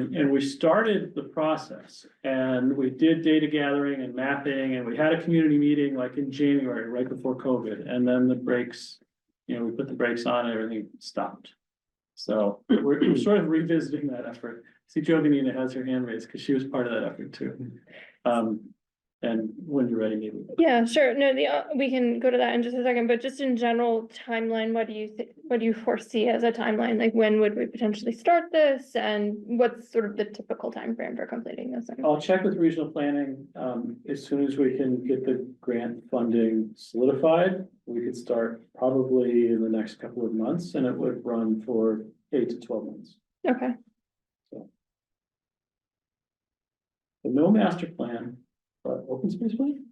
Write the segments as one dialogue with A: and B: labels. A: And we started the process and we did data gathering and mapping and we had a community meeting like in January, right before COVID, and then the brakes. You know, we put the brakes on and everything stopped. So we're we're sort of revisiting that effort. See, Jovanina has her hand raised because she was part of that effort too. Um, and when you're ready, maybe.
B: Yeah, sure. No, the, uh, we can go to that in just a second, but just in general timeline, what do you, thi- what do you foresee as a timeline? Like when would we potentially start this? And what's sort of the typical timeframe for completing this? And-
A: I'll check with regional planning, um, as soon as we can get the grant funding solidified. We could start probably in the next couple of months and it would run for eight to twelve months.
B: Okay,
A: But no master plan, but open space plan?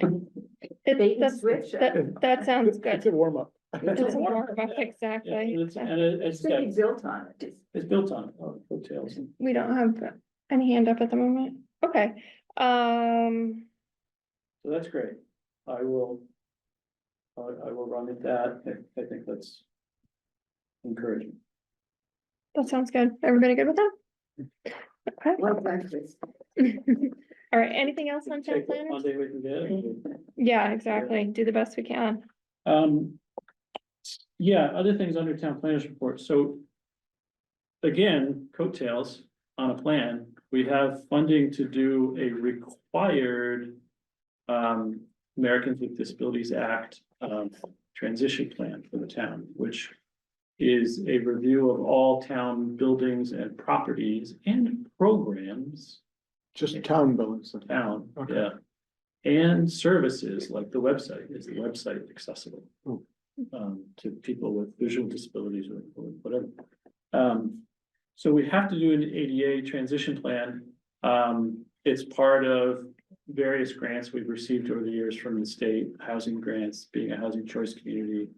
B: it,
C: Bait and
B: that's,
C: switch. uh,
B: that, that sounds good.
D: a warm up.
B: It's more of a-
A: Yeah,
B: Exactly.
A: and it's, and it- it's,
C: It's gonna be
A: got-
C: built on it.
A: it's built on, uh, hotels.
B: We don't have any hand up at the moment. Okay, um,
A: So that's great. I will. I, I will run at that. I, I think that's encouraging.
B: that sounds good. Everybody good with that? Okay.
C: Well, done, Chris.
B: All right, anything else on town
A: Take what
B: planners? Mm-hmm.
A: Monday we can get.
B: Yeah, exactly. Do the best we can.
A: Um, yeah, other things under town planners report, so. Again, coattails on a plan, we have funding to do a required. Um, Americans with Disabilities Act, um, transition plan for the town, which. Is a review of all town buildings and properties and programs
D: Just town buildings. then.
A: town,
D: Okay.
A: yeah. And services like the website, is the website accessible?
D: Oh.
A: Um, to people with visual disabilities or or whatever. Um, so we have to do an ADA transition plan. Um, it's part of various grants we've received over the years from the state, housing grants, being a housing choice community.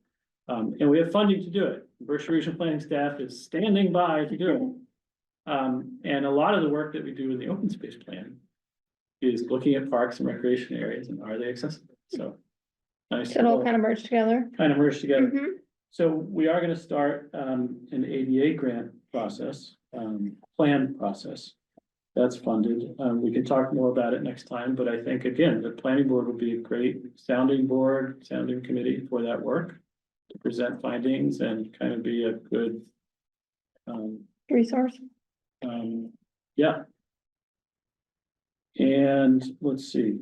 A: Um, and we have funding to do it. Berkshire Regional Planning staff is standing by to do it. Um, and a lot of the work that we do in the open space plan is looking at parks and recreation areas and are they accessible? So. Nice,
B: So It'll
A: little
B: kind of merge together.
A: kind of merged together.
B: Mhm.
A: So we are gonna start um an ADA grant process, um plan process. That's funded. Um we can talk more about it next time, but I think again, the planning board would be a great sounding board, sounding committee for that work. To present findings and kind of be a good. Um,
B: resource.
A: um, yeah. And let's see.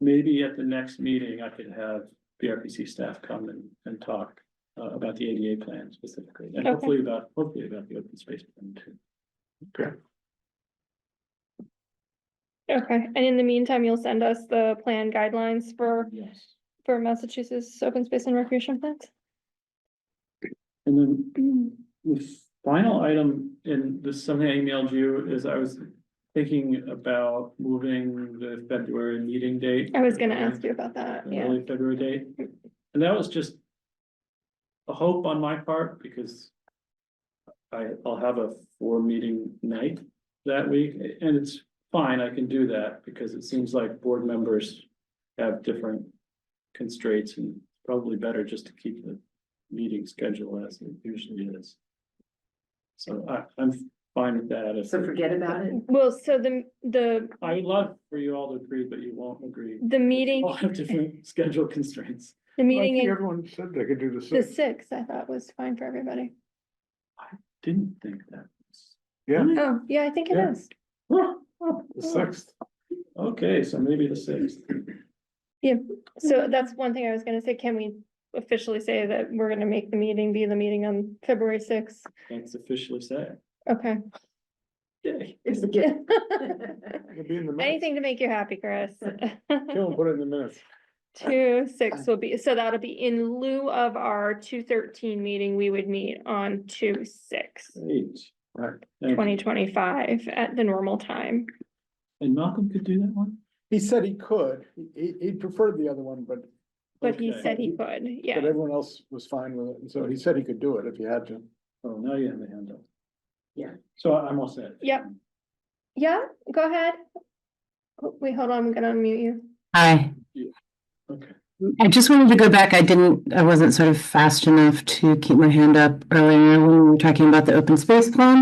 A: Maybe at the next meeting, I could have BRPC staff come and, and talk uh, about the ADA plan specifically, and
B: Okay.
A: hopefully about, hopefully about the open space plan too.
B: Okay, and in the meantime, you'll send us the plan guidelines for,
A: Yes.
B: for Massachusetts Open Space and Recreation Plans?
A: And then the final item, and this is something I emailed you, is I was thinking about moving the February meeting date.
B: I was gonna ask you about that,
A: an
B: yeah.
A: early February date. And that was just a hope on my part because I, I'll have a four meeting night that week and it's fine, I can do that because it seems like board members have different constraints and probably better just to keep the meeting schedule as it usually is. So I, I'm fine with that. If-
C: So forget about it.
B: Well, so the, the,
A: I would love for you all to agree, but you won't agree.
B: the meeting,
A: All have different schedule constraints.
B: the meeting,
D: I think
B: in
D: Everyone said they could do the
B: the
D: six.
B: sixth, I thought was fine for everybody.
A: Didn't think that.
D: Yeah.
B: Oh, yeah, I think it
A: Yeah.
B: is.
D: The sixth.
A: Okay, so maybe the sixth.
B: So that's one thing I was gonna say, can we officially say that we're gonna make the meeting be the meeting on February sixth?
A: That's officially set.
B: Okay,
A: Yay.
C: It's a gift.
D: It'll be in the minutes.
B: anything to make you happy, Chris.
D: Kill 'em, put it in the minutes.
B: Two, six will be, so that'll be in lieu of our two thirteen meeting, we would meet on two, six,
A: Eight.
D: Right.
A: Thank you.
B: twenty twenty-five at the normal time.
A: And Malcolm could do that one?
D: He said he could. He- He, he preferred the other one, but,
B: But he
A: Okay.
B: said he could, yeah.
D: but everyone else was fine with it. And so he said he could do it if he had to.
A: Oh, now you have a hand up.
C: Yeah.
A: So I- I'm all set.
B: Yep. Yeah, go ahead. Oh, Wait, hold on, I'm gonna unmute you.
E: Hi,
A: Okay.
E: I just wanted to go back. I didn't, I wasn't sort of fast enough to keep my hand up earlier when we were talking about the open space plan.